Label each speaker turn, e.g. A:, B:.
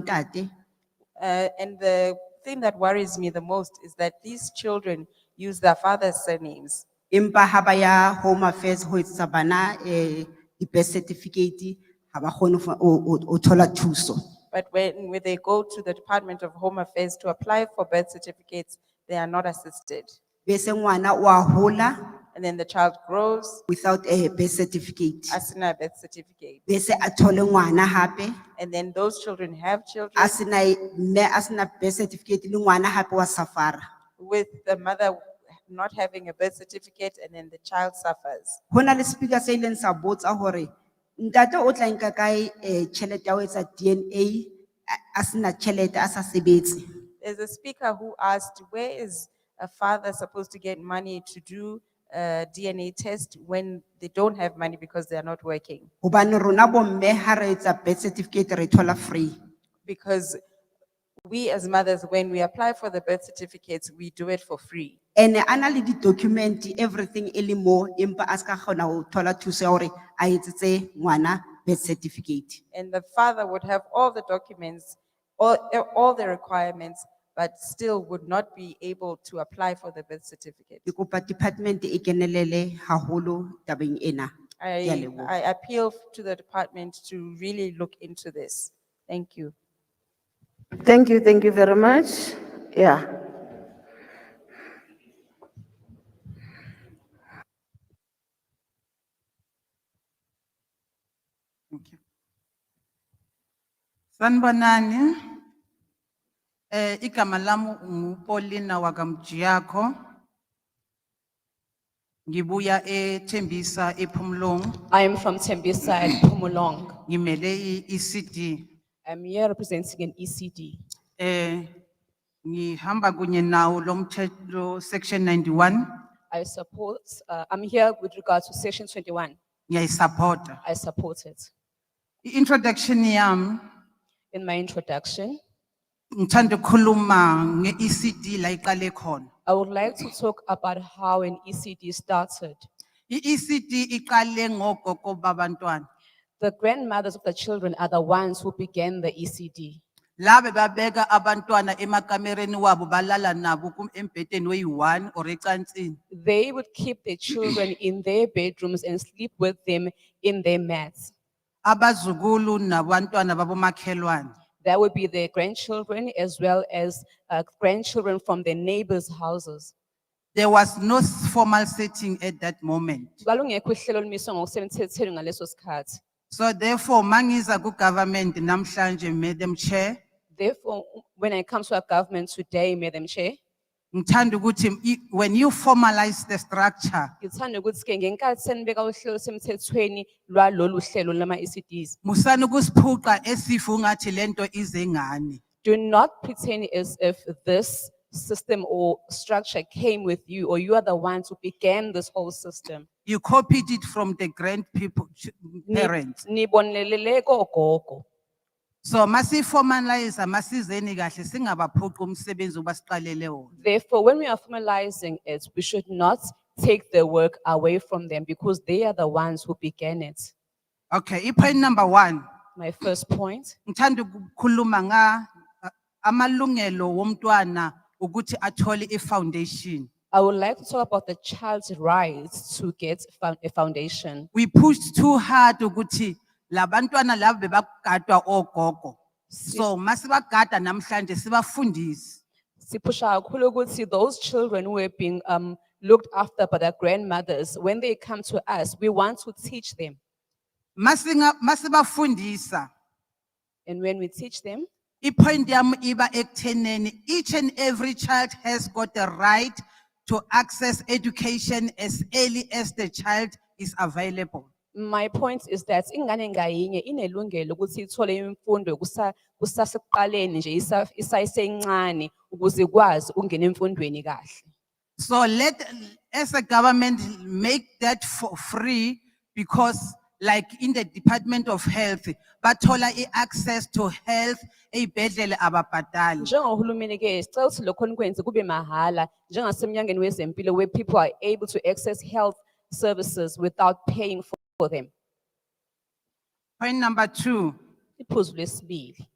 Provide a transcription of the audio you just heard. A: ntate
B: Uh, and the thing that worries me the most is that these children use their father's surnames.
A: empa ha ba ya home affairs ho etsetsa bana eh di-birth certificate ha ba kgone ho fa- o o- o thola thuso
B: But when, when they go to the Department of Home Affairs to apply for birth certificates, they are not assisted.
A: bese ngwana o a hola
B: And then the child grows,
A: without a birth certificate
B: as in a birth certificate.
A: bese a thole ngwana hape
B: And then those children have children
A: a sena e- mme a sena birth certificate le ngwana hape wa safara
B: with the mother not having a birth certificate, and then the child suffers.
A: ho na le speaker se ileng sa botsa hore ntate o tla nka kae eh tjhelete ya ho etsa dna a- a sena tjhelete a sa sebetse
B: There's a speaker who asked, where is a father supposed to get money to do a DNA test when they don't have money because they are not working?
A: hobane rona bomme ha re etsa birth certificate re e thola free
B: Because we as mothers, when we apply for the birth certificates, we do it for free.
A: ene a na le di-document everything e le moo empa a se ka kgona ho thola thuso ya hore a etsetse ngwana birth certificate
B: And the father would have all the documents, all, all the requirements, but still would not be able to apply for the birth certificate.
A: ke kopa department e kenelele haholo tabeng ena Ke a
B: I,
A: leboha.
B: I appeal to the department to really look into this. Thank you.
C: Thank you, thank you very much. Yeah.
D: Sanibonani. Eh, igama lami nguPaulina wakamjiyakho. Ngibuya eThembisa ePhumlong,
E: I am from Tembisa and Pumulong.
D: ngimele i-ECD.
E: I'm here representing an E ECD.
D: Eh, ngihamba kunye nawo lo mthetho section 91,
E: I support, uh, I'm here with regards to section twenty-one.
D: ngiyayisupporta.
E: I support it.
D: I-introduction yami,
E: In my introduction,
D: ngithanda ukukhuluma nge-ECD la iqale khona.
E: I would like to talk about how an ECD started.
D: I-ECD iqale ngogogo babantwana.
E: The grandmothers of the children are the ones who began the E ECD.
D: Labe babeka abantwana emakamereni wabo balala nabo kum embhedeni oyi-one or ecansini.
E: They would keep their children in their bedrooms and sleep with them in their mats.
D: Abazukulu nabantwana babomakhelwane.
E: That would be their grandchildren as well as uh, grandchildren from their neighbors' houses.
D: There was no s- formal setting at that moment.
E: Kwalungekho uhlelo olumiswe ngokusemthethweni ngaleso sikhathi.
D: So therefore, mangiza ku-government namhlanje, Madam Chair,
E: Therefore, when it comes to our government today, Madam Chair,
D: ngithanda ukuthi i- when you formalize the structure,
E: ngithanda ukuthi ke ngenkathi senibeka uhlelo semthethweni lwalolu hlelo lama-ECDs,
D: musani ukusiphuqa esifa ungathi lento ize ngani.
E: do not pretend as if this system or structure came with you or you are the ones who began this whole system.
D: You copied it from the grand people, ch-
E: Ni-
D: parents.
E: Nibonelele kogogo.
D: So masi formalize, masizeni kahle, singabaphuqi umsebenzi obasiqalele wona.
E: Therefore, when we are formalizing it, we should not take the work away from them because they are the ones who began it.
D: Okay, i-point number one,
E: My first point.
D: ngithanda ukukhuluma nga uh, amalungelo womntwana ukuthi athole i-foundation.
E: I would like to talk about the child's rights to get found- a foundation.
D: We pushed too hard ukuthi labantwana labo bebagadwa ogogo. So masibagada namhlanje sibafundise.
E: Sipusha kakhulu ukuthi those children who have been um, looked after by their grandmothers, when they come to us, we want to teach them.
D: Masinga masibafundisa.
E: And when we teach them,
D: I-point yami iba ekuthenini each and every child has got the right to access education as early as the child is available.
E: my point is that ingane ngayinye inelungelo ukuthi ithole imfundo kusa- kusasekuqaleni nje isa- isasencane ukuze ikwazi ukungena emfundweni kahle.
D: So let, as a government, make that for free because like in the Department of Health, bathola i-access to health, eyibhedlela ababhadali.
E: Njengohulumeni ke sicela ukuthi lokho nikwenze kube mahhala njengasemnyangweni wezempilo where people are able to access health services without paying for for them.
D: Point number two,
E: Iphuzu lesibili.